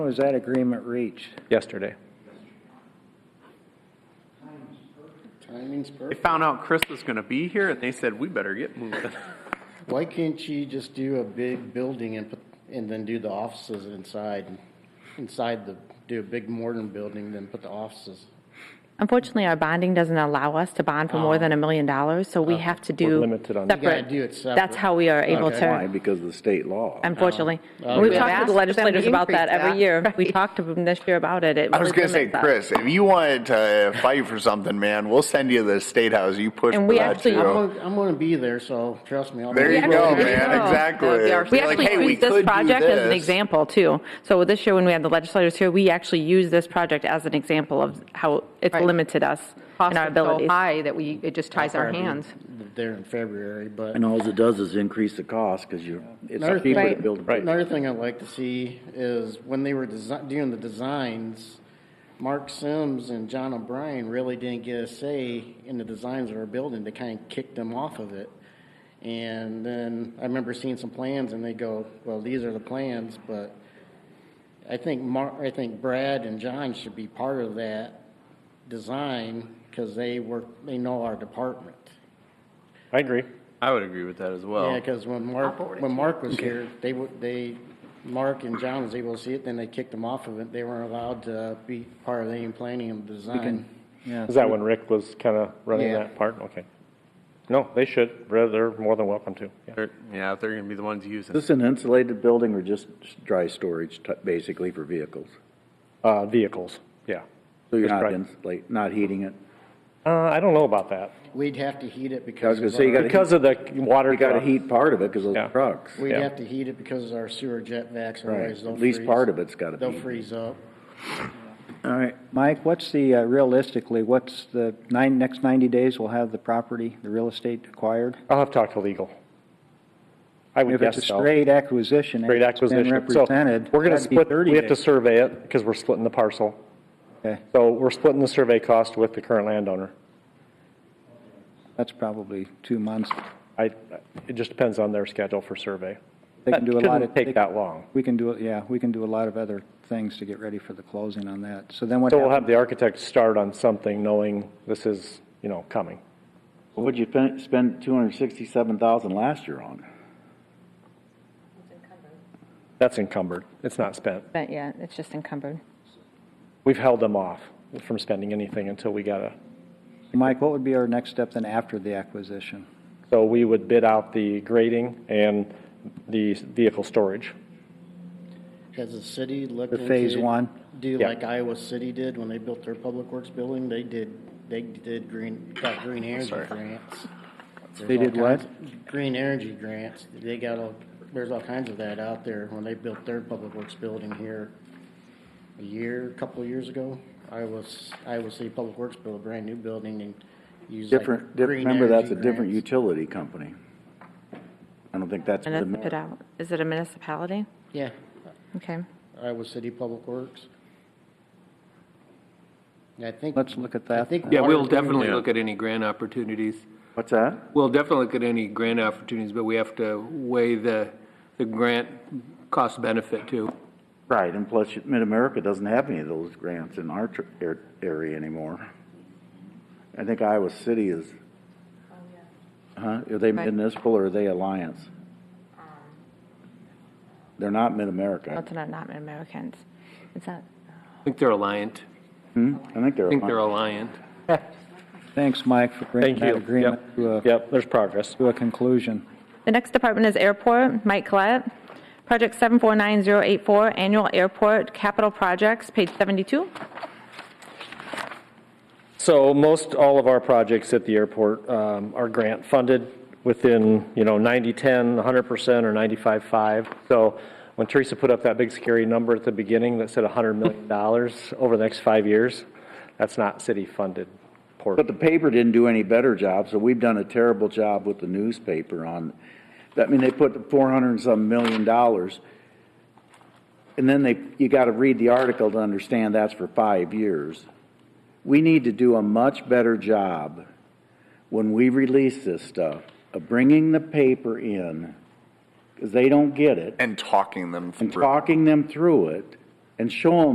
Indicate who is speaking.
Speaker 1: was that agreement reached?
Speaker 2: yesterday.
Speaker 3: Timing's
Speaker 4: They
Speaker 3: perfect.
Speaker 4: found out Chris was going to be here, and they said, "We better get moving."
Speaker 3: Why can't you just do a big building and, put and then do the offices inside? Inside the, do a big modern building, then put the offices.
Speaker 5: Unfortunately, our bonding doesn't allow us to bond for
Speaker 6: Oh.
Speaker 5: more than a million dollars, so we have to do
Speaker 2: limited on- You
Speaker 5: separate.
Speaker 3: gotta do it separate.
Speaker 5: That's how we are able
Speaker 3: Okay.
Speaker 7: Why?
Speaker 5: to,
Speaker 7: Because of the state law.
Speaker 5: unfortunately.
Speaker 3: Oh.
Speaker 5: We've
Speaker 3: Okay.
Speaker 5: talked to the
Speaker 8: We've asked them to
Speaker 5: legislators about that
Speaker 8: increase
Speaker 5: every
Speaker 8: that.
Speaker 5: year. We talked to them this year about it. It
Speaker 6: I was
Speaker 5: really
Speaker 6: going to say,
Speaker 5: limits us.
Speaker 6: Chris, if you wanted to fight for something, man, we'll send you to the state house. You push
Speaker 5: And
Speaker 6: for
Speaker 5: we
Speaker 6: that
Speaker 5: actually-
Speaker 6: too.
Speaker 3: I'm gonna, I'm gonna be there, so trust me. I'll
Speaker 6: there
Speaker 3: be
Speaker 6: you go,
Speaker 5: actually-
Speaker 6: man.
Speaker 5: That
Speaker 6: Exactly.
Speaker 8: would be our-
Speaker 5: We
Speaker 6: Like,
Speaker 5: actually
Speaker 6: hey, we
Speaker 5: used
Speaker 6: could
Speaker 5: this
Speaker 6: do
Speaker 5: project as an
Speaker 6: this.
Speaker 5: example too. So this year, when we had the legislators here, we actually used this project as an example of how it's
Speaker 8: Right.
Speaker 5: limited us
Speaker 8: Costs
Speaker 5: in our
Speaker 8: are so
Speaker 5: abilities.
Speaker 8: high that we, it just ties our hands.
Speaker 3: There in February, but.
Speaker 7: And all it does is increase the cost because you're, it's
Speaker 3: Another
Speaker 7: cheaper to
Speaker 3: thing-
Speaker 7: build. a
Speaker 2: Right.
Speaker 3: Another thing I'd like to see is when they were desi doing the designs, Mark Sims and John O'Brien really didn't get a say in the designs of our building. They kind of kicked them off of it. And then I remember seeing some plans and they go, well, these are the plans, but I think Mar, I think Brad and John should be part of that design because they work, they know our department.
Speaker 2: I agree.
Speaker 4: I would agree with that as well.
Speaker 3: Yeah, because when Mark, when Mark was here, they would, they, Mark and John was able to see it, then they kicked him off of it. They weren't allowed to be part of any planning and design.
Speaker 2: Is that when Rick was kind of running
Speaker 3: Yeah.
Speaker 2: that part? Okay. No, they should. They're they're more than welcome to. Yeah.
Speaker 4: They're- yeah, they're going to be the ones using.
Speaker 7: Is this an insulated building or just dry storage, t- basically, for vehicles?
Speaker 2: Uh, vehicles, yeah.
Speaker 7: So you're
Speaker 2: Just
Speaker 7: not
Speaker 2: dry-
Speaker 7: insulate, not heating it?
Speaker 2: Uh, I don't know about that.
Speaker 3: We'd have to heat it because.
Speaker 7: I was gonna
Speaker 3: of
Speaker 7: say, you
Speaker 3: our-
Speaker 7: gotta
Speaker 2: Because of the water.
Speaker 7: You gotta
Speaker 2: truck.
Speaker 7: heat part of it because of
Speaker 2: Yeah.
Speaker 7: those trucks.
Speaker 3: We'd
Speaker 2: yeah.
Speaker 3: have to heat it because our sewer jet vacs,
Speaker 7: Right.
Speaker 3: otherwise they'll
Speaker 7: At
Speaker 3: freeze.
Speaker 7: least part of it's gotta be.
Speaker 3: They'll freeze up.
Speaker 1: All right, Mike, what's the, uh, realistically, what's the nine, next 90 days we'll have the property, the real estate acquired?
Speaker 2: I'll have to talk to legal. I would
Speaker 1: If
Speaker 2: guess
Speaker 1: it's
Speaker 2: so.
Speaker 1: a straight acquisition, and
Speaker 2: Great
Speaker 1: it's
Speaker 2: acquisition.
Speaker 1: been
Speaker 2: So
Speaker 1: represented.
Speaker 2: We're going to
Speaker 1: that'd be
Speaker 2: split,
Speaker 1: 30
Speaker 2: we have to
Speaker 1: days.
Speaker 2: survey it because we're splitting the parcel.
Speaker 1: Okay,
Speaker 2: So we're splitting the survey cost with the current landowner.
Speaker 1: That's probably two months.
Speaker 2: I, it just depends on their schedule for survey.
Speaker 1: They can
Speaker 2: That
Speaker 1: do a lot
Speaker 2: shouldn't
Speaker 1: of.
Speaker 2: take
Speaker 1: they-
Speaker 2: that long.
Speaker 1: We can do, it. yeah, we can do a lot of other things to get ready for the closing on that. So then what
Speaker 2: So we'll
Speaker 1: happens?
Speaker 2: have the architect start on something knowing this is, you know, coming.
Speaker 7: What would you pen- spend two hundred sixty-seven thousand last year on?
Speaker 2: That's encumbered. It's not spent.
Speaker 5: But yeah, it's just encumbered.
Speaker 2: We've held them off from spending anything until we got a,
Speaker 1: Mike, what would be our next step then after the acquisition?
Speaker 2: so we would bid out the grading and the vehicle storage.
Speaker 3: Has the city looked
Speaker 1: The
Speaker 3: into?
Speaker 1: phase one?
Speaker 3: Do
Speaker 2: Yeah.
Speaker 3: like Iowa City did when they built their public works building. They did, they did green, got green energy grants.
Speaker 1: They did what?
Speaker 3: Green energy grants. They got all, there's all kinds of that out there when they built their public works building here a year, a couple of years ago. I was, Iowa City Public Works built a brand new building and used like
Speaker 7: Different, diff-
Speaker 3: green
Speaker 7: remember, that's
Speaker 3: energy
Speaker 7: a different
Speaker 3: grants.
Speaker 7: utility company. I don't think that's.
Speaker 5: And
Speaker 7: the-
Speaker 5: it's put out. Is it a municipality?
Speaker 3: Yeah,
Speaker 5: Okay.
Speaker 3: Iowa City Public Works. And I think.
Speaker 1: Let's look at
Speaker 3: I
Speaker 1: that.
Speaker 3: think.
Speaker 9: Yeah, we'll
Speaker 3: water-
Speaker 9: definitely look at any grant opportunities.
Speaker 7: What's that?
Speaker 9: We'll definitely look at any grant opportunities, but we have to weigh the, the grant cost benefit too.
Speaker 7: Right, and plus Mid-America doesn't have any of those grants in our tr- ar- area anymore. I think Iowa City is, huh, are they
Speaker 5: Oh, Right.
Speaker 7: municipal or are they Alliance? They're not Mid-America.
Speaker 5: That's not, not Americans. It's not.
Speaker 9: I think they're Alliant.
Speaker 7: I think they're
Speaker 9: I think they're
Speaker 7: Alliance.
Speaker 9: Alliant.
Speaker 1: Thanks, Mike, for
Speaker 2: Thank
Speaker 1: bringing that
Speaker 2: you. Yep.
Speaker 1: agreement uh, to a,
Speaker 2: Yep, there's progress.
Speaker 1: to a conclusion.
Speaker 5: The next department is airport. Mike Collette. Project 749084, annual airport capital projects, page 72.
Speaker 2: So most all of our projects at the airport um, are grant funded within, you know, 90, 10, 100 percent or 95, 5. So when Teresa put up that big scary number at the beginning that said 100 million dollars over the next five years, that's not city funded
Speaker 7: But
Speaker 2: portion.
Speaker 7: the paper didn't do any better job, so we've done a terrible job with the newspaper on, I mean, they put four hundred and some million dollars. And then they, you gotta read the article to understand that's for five years. We need to do a much better job when we release this stuff of bringing the paper in, because they don't get it
Speaker 6: And talking them through.
Speaker 7: and talking them through it and show them